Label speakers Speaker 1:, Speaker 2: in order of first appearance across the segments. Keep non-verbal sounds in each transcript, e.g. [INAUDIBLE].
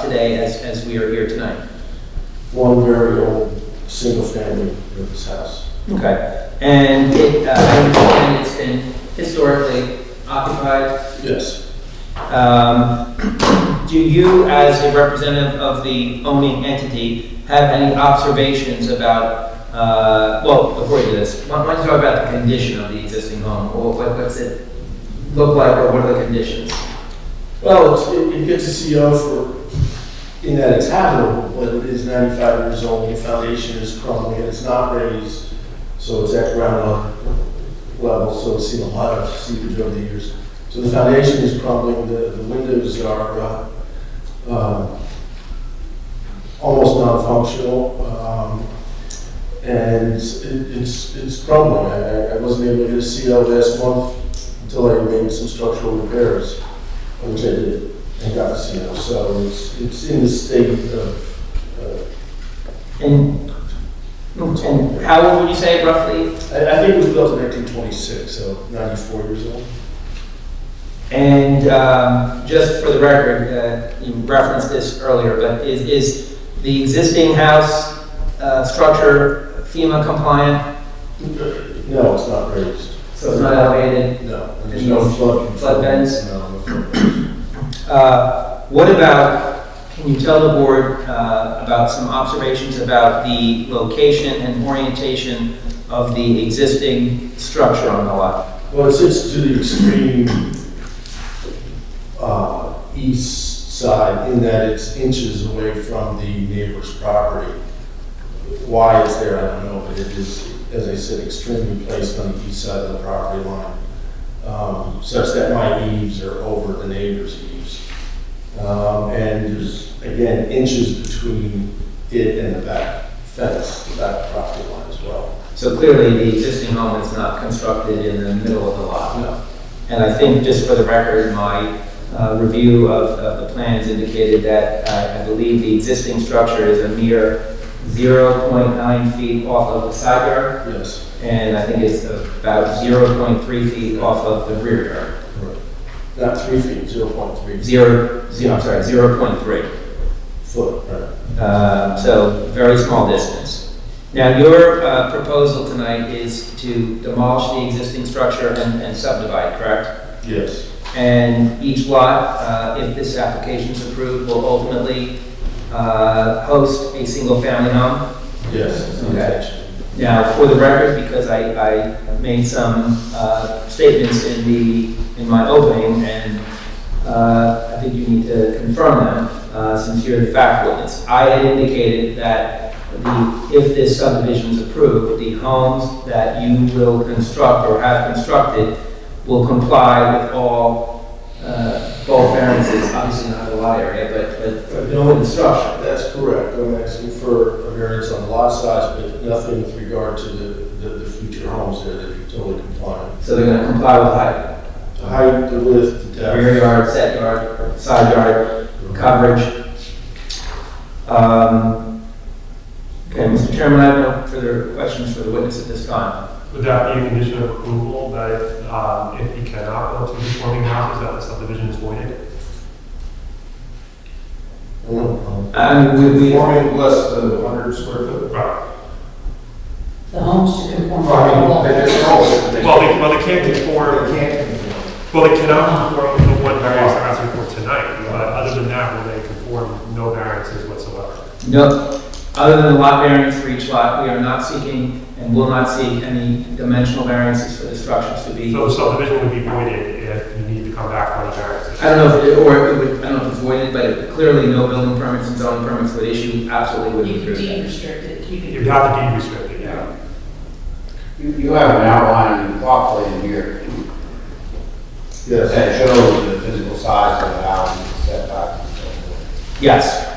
Speaker 1: today as, as we are here tonight?
Speaker 2: one very old, single-family this house.
Speaker 1: Okay. And it, uh, I understand it's been historically occupied.
Speaker 2: Yes.
Speaker 1: Um, [CLEARS THROAT] Do you, as a representative of the owning entity, have any observations about, uh, well, before you do this, why why don't you talk about the condition of the existing home? Or what- what's it look like, or what are the conditions?
Speaker 2: Well, it's- it, it gets a CO for, in that it's habitable, but it is ninety-five years old, the foundation is crumbling, and it's not raised, so it's at ground level, so it's seen a lot of seepage over the years. So the foundation is crumbling, the, the windows are, uh, um, almost non-functional, um, and it- it's, it's crumbling. I, I- I wasn't able to get a CO last month until I made some structural repairs which I did, and got the CO. So it's, it's in the state of, uh,
Speaker 1: And, and how old would you say roughly?
Speaker 2: I, I think it was built in 1926, so 94 years
Speaker 1: [LAUGHS]
Speaker 2: old.
Speaker 1: And um, just for the record, uh, you referenced this earlier, but is, is the existing house uh, structure FEMA compliant?
Speaker 2: No, it's not raised.
Speaker 1: So it's not elevated?
Speaker 2: No, and there's no flood. control.
Speaker 1: Flood vents?
Speaker 2: No, no flood vents.
Speaker 1: Uh, What about, can you tell the board uh, about some observations about the location and orientation of the existing structure on the lot?
Speaker 2: Well, it sits to the extreme uh, east side in that it's inches away from the neighbor's property. Why it's there, I don't know, but it is, as I said, extremely placed on the east side of the property line, um, such that my eaves are over the neighbor's eaves. Um, And there's, again, inches between it and the back fence, the back property line as well.
Speaker 1: So clearly, the existing home is not constructed in the middle of the lot.
Speaker 2: No.
Speaker 1: And I think, just for the record, my uh, review of, of the plans indicated that uh, I believe the existing structure is a mere 0.9 feet off of the side yard,
Speaker 2: Yes.
Speaker 1: and I think it's about 0.3 feet off of the rear yard.
Speaker 2: correct. Not three feet, 0.3 feet.
Speaker 1: Zero, zero, I'm sorry, zero point three.
Speaker 2: foot, right?
Speaker 1: Uh, so very small distance. Now, your, uh, proposal tonight is to demolish the existing structure and, and subdivide, correct?
Speaker 2: Yes.
Speaker 1: And each lot, uh, if this application is approved, will ultimately, uh, host a single-family home?
Speaker 2: Yes. it's an
Speaker 1: Okay.
Speaker 2: intention.
Speaker 1: Now, for the record, because I, I made some uh, statements in the, in my opening, and uh, I think you need to confirm them, uh, since you're the fact witness. I had indicated that the, if this subdivision is approved, the homes that you will construct or have constructed will comply with all, uh, bulk variances, obviously not the lot area, but, but
Speaker 2: But No instruction, that's correct. I'm asking for a variance on lot size, but nothing with regard to the, the, the future homes there that are totally compliant.
Speaker 1: so they're gonna comply with height,
Speaker 2: The height, the width, the
Speaker 1: rear
Speaker 2: depth.
Speaker 1: yard, set yard, side yard, coverage. Um, Okay, Mr. Chairman, I have no further questions for the witness at this time.
Speaker 3: Would that be a condition of approval that if, um, if he cannot build two conforming houses, that the subdivision is voided?
Speaker 2: Mm, mm.
Speaker 1: I mean, we, we,
Speaker 4: Forming less than 100 square foot.
Speaker 3: Right.
Speaker 5: The homes to conform. to
Speaker 4: Well, I
Speaker 5: the
Speaker 4: mean,
Speaker 5: law.
Speaker 4: they just told us that they.
Speaker 3: Well, they, well, they can't
Speaker 4: Or
Speaker 3: conform,
Speaker 4: they can't conform.
Speaker 3: well, they cannot conform with the one variance they're asking for tonight, but other than that, will they conform no variances whatsoever?
Speaker 1: no, other than the lot variance for each lot, we are not seeking and will not seek any dimensional variances for the structures to be.
Speaker 3: So the subdivision would be voided if you need to come back for any variances.
Speaker 1: I don't know if, it- or it would, I don't know if it's voided, but clearly no building permits and zoning permits would issue, absolutely
Speaker 5: You
Speaker 1: wouldn't
Speaker 5: can
Speaker 1: approve that.
Speaker 5: de-restrict it, you
Speaker 3: You'd
Speaker 5: can,
Speaker 3: have to be restricted, yeah.
Speaker 6: You, you have an outline and plot plan here
Speaker 2: Yes.
Speaker 6: that shows the physical size of the house and the setbacks and so forth.
Speaker 1: Yes,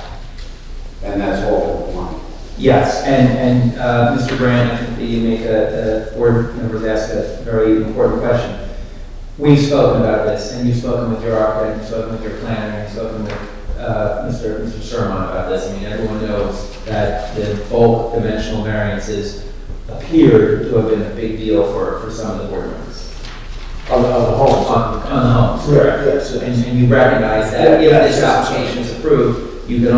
Speaker 6: And that's all we want.
Speaker 1: yes, and, and, uh, Mr. Brand, I think that you make a, a board members ask a very important question. We've spoken about this, and you've spoken with your architect, you've spoken with your planner, you've spoken with uh, Mr. Mr. Sherman about this. I mean, everyone knows that the bulk dimensional variances appear to have been a big deal for, for some of the board members
Speaker 2: On, the- on the homes.
Speaker 1: on, on the homes.
Speaker 2: Correct, yes,
Speaker 1: And
Speaker 2: yes.
Speaker 1: and you recognize that if
Speaker 2: Yeah,
Speaker 1: this
Speaker 2: yes.
Speaker 1: application is approved, you can